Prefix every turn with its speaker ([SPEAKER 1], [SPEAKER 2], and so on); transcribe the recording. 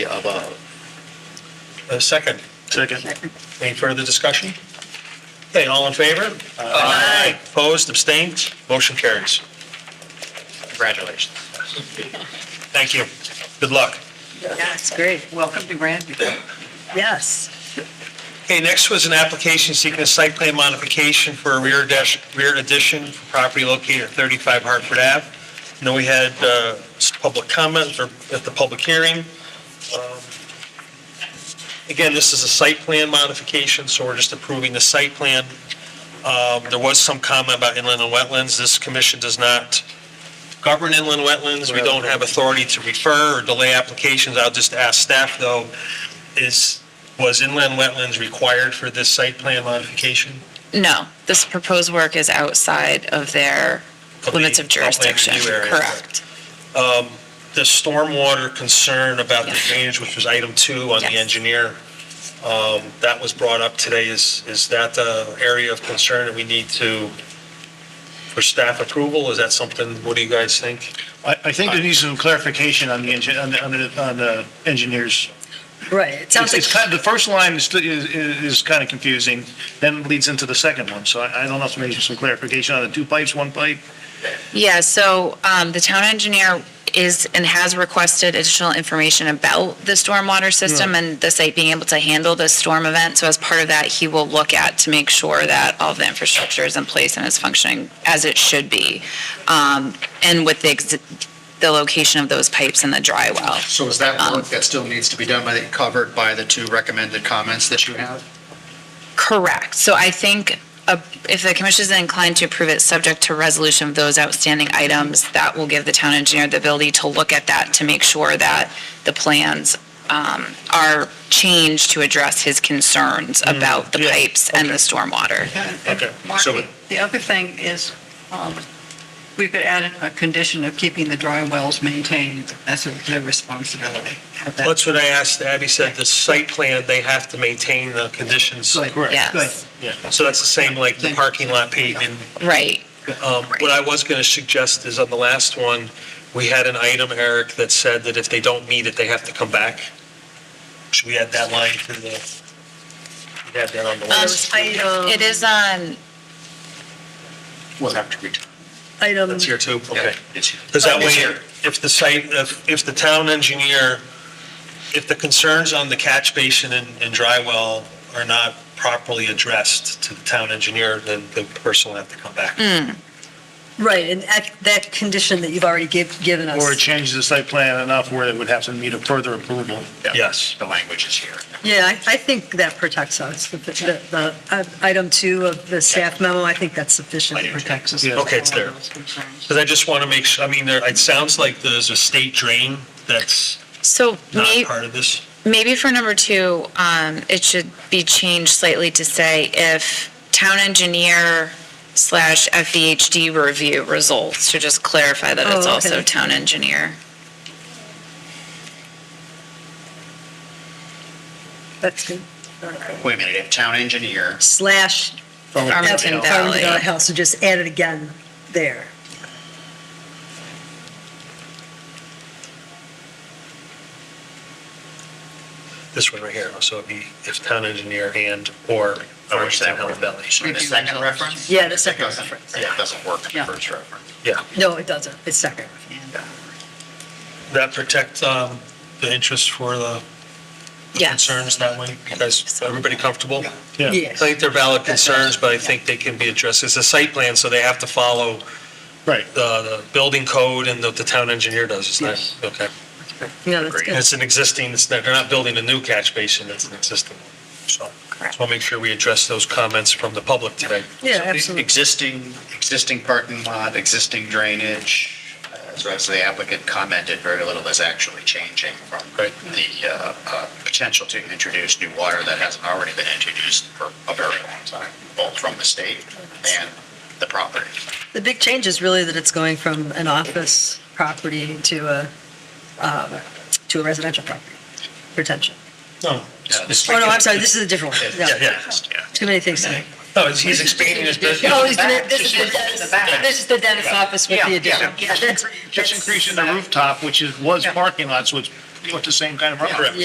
[SPEAKER 1] above. A second,
[SPEAKER 2] Second.
[SPEAKER 1] any further discussion? Okay, all in favor? Aye. Opposed, abstained, motion carries. Congratulations. Thank you. Good luck.
[SPEAKER 3] That's great. Welcome to Grandview. Yes.
[SPEAKER 1] Okay, next was an application seeking a site plan modification for a rear dash, rear addition for property located at 35 Hartford Ave. I know we had, uh, s- public comment or at the public hearing. Um, Again, this is a site plan modification, so we're just approving the site plan. Um, there was some comment about inland and wetlands. This commission does not govern inland wetlands. We don't have authority to refer or delay applications. I'll just ask staff though, is, was inland wetlands required for this site plan modification?
[SPEAKER 4] No, this proposed work is outside of their
[SPEAKER 1] Of the
[SPEAKER 4] limits of
[SPEAKER 1] upland
[SPEAKER 4] jurisdiction.
[SPEAKER 1] review area.
[SPEAKER 4] Correct.
[SPEAKER 1] The stormwater concern about the
[SPEAKER 4] Yeah.
[SPEAKER 1] drainage, which was item two on the
[SPEAKER 4] Yes.
[SPEAKER 1] engineer, um, that was brought up today, is, is that the area of concern that we need to, for staff approval, is that something, what do you guys think?
[SPEAKER 2] I, I think there needs some clarification on the engine, on the, on the, on the engineers.
[SPEAKER 3] Right. It sounds like,
[SPEAKER 2] It's, it's kind, the first line is, is, is kind of confusing, then leads into the second one, so I, I don't know if maybe some clarification on the two pipes, one pipe.
[SPEAKER 4] Yeah, so um, the town engineer is and has requested additional information about the stormwater system and the site being able to handle the storm event. So as part of that, he will look at to make sure that all of the infrastructure is in place and is functioning as it should be. Um, And with the, ex- the location of those pipes in the dry well.
[SPEAKER 5] So is that work that still needs to be done by, the- covered by the two recommended comments that you have?
[SPEAKER 4] Correct. So I think uh, if the commission is inclined to approve it, subject to resolution of those outstanding items, that will give the town engineer the ability to look at that to make sure that the plans um, are changed to address his concerns about the
[SPEAKER 2] yeah,
[SPEAKER 4] pipes and the stormwater.
[SPEAKER 1] Okay,
[SPEAKER 3] Mark,
[SPEAKER 1] so-
[SPEAKER 3] the other thing is, um, we could add in a condition of keeping the dry wells maintained. That's their responsibility. Have that-
[SPEAKER 1] That's what I asked, Abby said, the site plan, they have to maintain the conditions.
[SPEAKER 3] Good.
[SPEAKER 2] Correct.
[SPEAKER 4] Yes.
[SPEAKER 2] Yeah.
[SPEAKER 1] So that's the same like the parking lot pavement,
[SPEAKER 4] Right.
[SPEAKER 1] Um, What I was going to suggest is on the last one, we had an item, Eric, that said that if they don't meet it, they have to come back. Should we add that line to the, we had that on the
[SPEAKER 4] Um,
[SPEAKER 1] list?
[SPEAKER 4] It is um, on,
[SPEAKER 5] We'll have to return.
[SPEAKER 3] Item,
[SPEAKER 1] That's here too, okay. Because that way, if the site, if, if the town engineer, if the concerns on the catch basin and, and dry well are not properly addressed to the town engineer, then the person will have to come back.
[SPEAKER 6] Right, and that, that condition that you've already give, given
[SPEAKER 2] Or
[SPEAKER 6] us.
[SPEAKER 2] change the site plan enough where it would have to meet a further approval.
[SPEAKER 1] Yes.
[SPEAKER 5] The language is here.
[SPEAKER 6] Yeah, I, I think that protects us, the, the, the, uh, item two of the staff memo, I think that's sufficient.
[SPEAKER 3] it protects us.
[SPEAKER 2] Yeah.
[SPEAKER 1] Okay, it's there. Because I just want to make sure, I mean, there, it sounds like there's a state drain that's
[SPEAKER 4] so
[SPEAKER 1] not
[SPEAKER 4] may-
[SPEAKER 1] part of this.
[SPEAKER 4] maybe for number two, um, it should be changed slightly to say if town engineer slash FVHD review results, to just clarify that it's
[SPEAKER 6] Oh,
[SPEAKER 4] also
[SPEAKER 6] okay.
[SPEAKER 4] town engineer.
[SPEAKER 6] That's good.
[SPEAKER 5] Wait a minute, if town engineer,
[SPEAKER 6] Slash.
[SPEAKER 4] Farmington
[SPEAKER 6] Farmington Valley
[SPEAKER 4] Valley.
[SPEAKER 6] Health, so just add it again there.
[SPEAKER 1] This one right here, so it'd be if town engineer and or
[SPEAKER 5] I wish
[SPEAKER 1] Farmington
[SPEAKER 5] that
[SPEAKER 1] Health
[SPEAKER 5] were
[SPEAKER 1] Valley.
[SPEAKER 5] so the second reference?
[SPEAKER 6] Yeah, the second
[SPEAKER 5] It doesn't-
[SPEAKER 6] reference.
[SPEAKER 5] Yeah, it doesn't work, the
[SPEAKER 3] Yeah.
[SPEAKER 5] first reference.
[SPEAKER 1] Yeah,
[SPEAKER 6] No, it doesn't, it's second.
[SPEAKER 1] that protect, um, the interest for the the
[SPEAKER 4] Yes.
[SPEAKER 1] concerns that way. You guys, everybody comfortable?
[SPEAKER 2] Yeah,
[SPEAKER 1] I think they're valid concerns, but I think they can be addressed. It's a site plan, so they have to follow
[SPEAKER 2] right.
[SPEAKER 1] the, the building code and what the town engineer does. It's not,
[SPEAKER 3] Yes.
[SPEAKER 1] okay.
[SPEAKER 6] No, that's
[SPEAKER 1] And
[SPEAKER 6] good.
[SPEAKER 1] It's an existing, it's not, they're not building a new catch basin, it's an existing one, so. Just want to make sure we address those comments from the public today.
[SPEAKER 6] Yeah,
[SPEAKER 5] So the
[SPEAKER 6] absolutely.
[SPEAKER 5] Existing, existing parking lot, existing drainage, uh, so as the applicant commented, very little is actually changing from
[SPEAKER 1] Right.
[SPEAKER 5] the uh, uh, potential to introduce new water that hasn't already been introduced for a very long time, both from the state and the property.
[SPEAKER 6] The big change is really that it's going from an office property to a, um, to a residential property, retention.
[SPEAKER 1] No.
[SPEAKER 5] Yeah, this-
[SPEAKER 6] Oh, no, I'm sorry, this is a different one.
[SPEAKER 1] Yeah, yeah.
[SPEAKER 5] Uh, Yeah.
[SPEAKER 6] Too many things to me.
[SPEAKER 1] No, it's- he's expanding his business.
[SPEAKER 6] Oh, he's gonna, this is the dentist, this is the dentist office with the addition. Yeah, that's-
[SPEAKER 2] Just increasing the rooftop, which is, was parking lot, so it's
[SPEAKER 7] with the same kind of runoff.
[SPEAKER 2] Correct.